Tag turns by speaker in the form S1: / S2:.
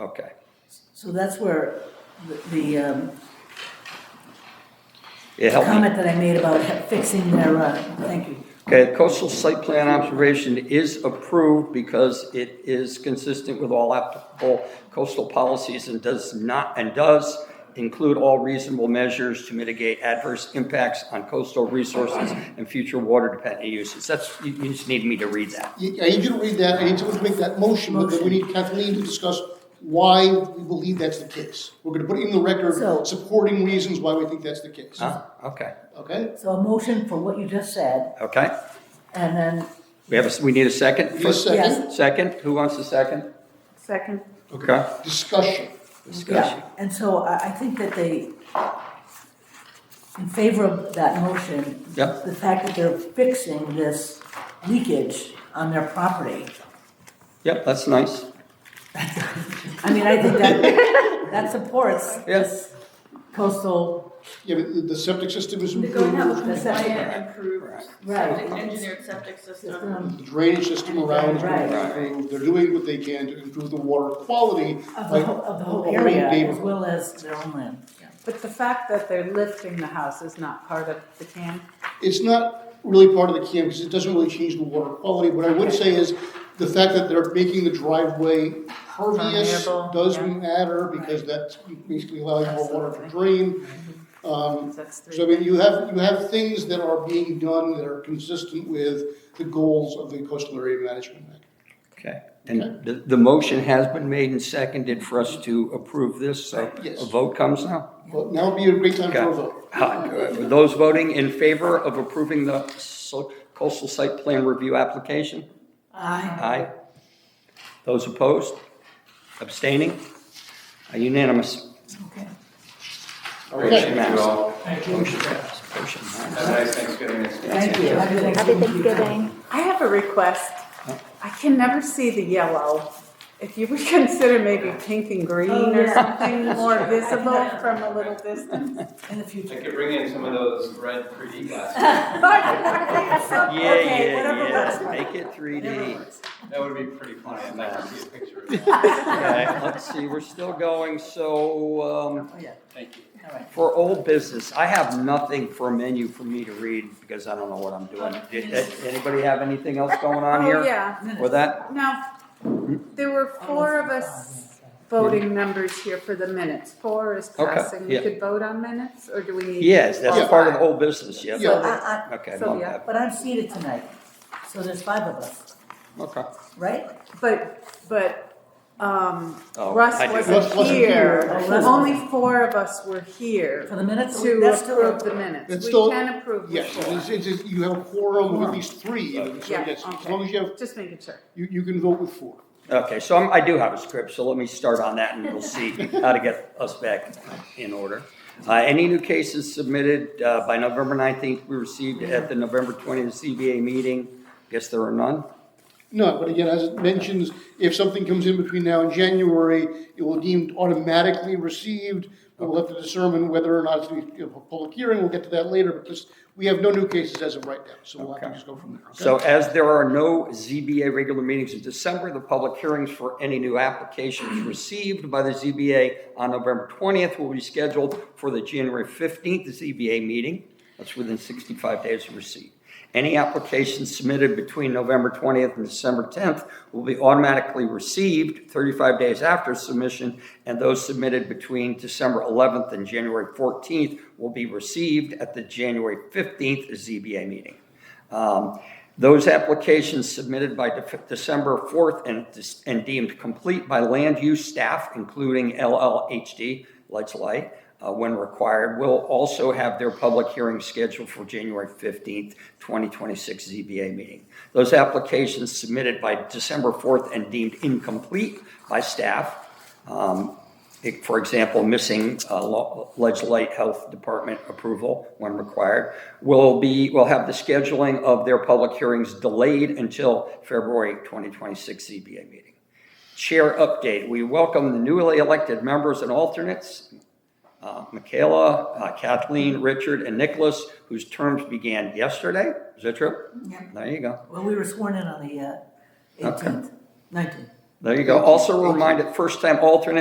S1: Okay.
S2: So that's where the- the um,
S1: It helped me.
S2: comment that I made about fixing their, uh, thank you.
S1: Okay, coastal site plan observation is approved because it is consistent with all applicable coastal policies and does not, and does include all reasonable measures to mitigate adverse impacts on coastal resources and future water dependent uses. That's, you, you just need me to read that.
S3: Y- I need you to read that, I need someone to make that motion, but then we need Kathleen to discuss why we believe that's the case. We're gonna put in
S2: So-
S3: the record supporting reasons why we think that's the case,
S1: Huh? Okay,
S3: okay?
S2: So a motion for what you just said,
S1: okay.
S2: and then,
S1: We have a, s- we need a second?
S3: Need a second?
S2: Yes.
S1: Second? Who wants a second?
S4: Second.
S1: Okay.
S3: Discussion,
S1: Discussion.
S2: yeah, and so I, I think that they, in favor of that motion,
S1: Yep.
S2: the fact that they're fixing this leakage on their property,
S1: Yep, that's nice.
S2: I mean, I think that, that supports
S1: Yes.
S2: this coastal,
S3: yeah, but the- the septic system is
S4: They're going to have
S3: improved,
S4: a compliant, improved,
S2: Right.
S4: septic, engineered septic system.
S2: um,
S3: the drainage system around is gonna be
S2: Right.
S3: improved, they're doing what they can to improve the water quality.
S2: of
S3: by-
S2: the whole, of the
S3: of
S2: whole
S3: the whole
S2: area, as
S3: neighborhood.
S2: well as their own land.
S5: But the fact that they're lifting the house is not part of the can?
S3: it's not really part of the camp because it doesn't really change the water quality. What I would say is the fact that they're making the driveway pervious
S5: Permeable,
S3: does
S5: yeah.
S3: matter because that's basically allowing more water to drain. Um,
S5: That's three.
S3: so I mean, you have, you have things that are being done that are consistent with the goals of the coastal area management act.
S1: Okay, and the, the motion has been made and seconded for us to approve this, so
S3: Yes.
S1: a vote comes now?
S3: Well, now would be a great time for a vote.
S1: Uh, Those voting in favor of approving the so- coastal site plan review application?
S2: Aye.
S1: Aye. Those opposed? Abstaining? Uh, Unanimous.
S2: Okay.
S3: Okay.
S6: Thank you all.
S1: Motion passed. Motion passed.
S6: Have a nice Thanksgiving.
S2: Thank you.
S4: Happy Thanksgiving.
S5: I have a request. I can never see the yellow. If you would consider maybe pink and green
S2: Oh,
S5: or
S2: yeah.
S5: something more visible from a little distance.
S2: In the
S6: I
S2: future.
S6: could bring in some of those red 3D glasses.
S1: Yeah,
S5: Okay,
S1: yeah,
S5: whatever works.
S1: yeah, make it 3D.
S6: That would be pretty funny. I'd like to see a picture of that.
S1: Okay, let's see, we're still going, so, um,
S2: Oh, yeah,
S6: Thank you.
S2: all right.
S1: For old business, I have nothing for a menu for me to read because I don't know what I'm doing. Did- did Anybody have anything else going on
S5: Oh,
S1: here?
S5: yeah.
S1: With that,
S5: Now, there were four of us voting numbers here for the minutes. Four is
S1: Okay,
S5: passing. We
S1: yeah.
S5: could vote on minutes, or do we need?
S1: yes, that's
S5: all
S1: part of
S5: five?
S1: old business, yeah.
S3: Yeah.
S2: But I-
S1: Okay,
S5: So,
S1: love
S5: yeah.
S1: that.
S2: I- but I'm seated tonight, so there's five of us,
S1: okay.
S2: right?
S5: But, but, um,
S1: Oh,
S5: Russ
S1: I do.
S3: Russ
S5: wasn't
S3: wasn't
S5: here.
S2: here. Oh, Russ
S5: Only four of us were here
S2: For the minutes,
S5: to
S2: that's still-
S5: approve the
S3: That's
S5: minutes. We
S3: still-
S5: can approve the
S3: Yes, it's,
S5: four.
S3: it's, it's- you have a quorum of at least three, even, so
S5: Yeah,
S3: yes, as
S5: okay.
S3: long as you have,
S5: Just making sure.
S3: you, you can vote with four.
S1: Okay, so I'm, I do have a script, so let me start on that and we'll see how to get us back in order. Uh, any new cases submitted, uh, by November nineteenth, we received at the November twentieth CBA meeting. Guess there are none?
S3: No, but again, as it mentions, if something comes in between now and January, it will deemed automatically received. But we'll have to determine whether or not it's you know, a public hearing. We'll get to that later, but this, we have no new cases as of right now, so we'll have
S1: Okay.
S3: to just go from there. okay?
S1: So as there are no ZBA regular meetings in December, the public hearings for any new applications received by the ZBA on November 20th will be scheduled for the January 15th ZBA meeting. That's within 65 days of receipt. Any applications submitted between November 20th and December 10th will be automatically received 35 days after submission, and those submitted between December 11th and January 14th will be received at the January 15th ZBA meeting. Um, Those applications submitted by Def- December 4th and dis- and deemed complete by land use staff, including LLHD, Lights Light, uh, when required, will also have their public hearing scheduled for January 15th, 2026 ZBA meeting. Those applications submitted by December 4th and deemed incomplete by staff um, it- For example, missing uh, lo- Ledgelight Health Department approval when required will be, will have the scheduling of their public hearings delayed until February 2026 ZBA meeting. Chair update, we welcome the newly elected members and alternates, uh, Michaela, uh, Kathleen, Richard, and Nicholas, whose terms began yesterday. Is that true?
S2: Yeah.
S1: There you go.
S2: Well, we were sworn in on the uh,
S1: Okay.
S2: 18th, 19th.
S1: There you go. Also a reminder, first time alternate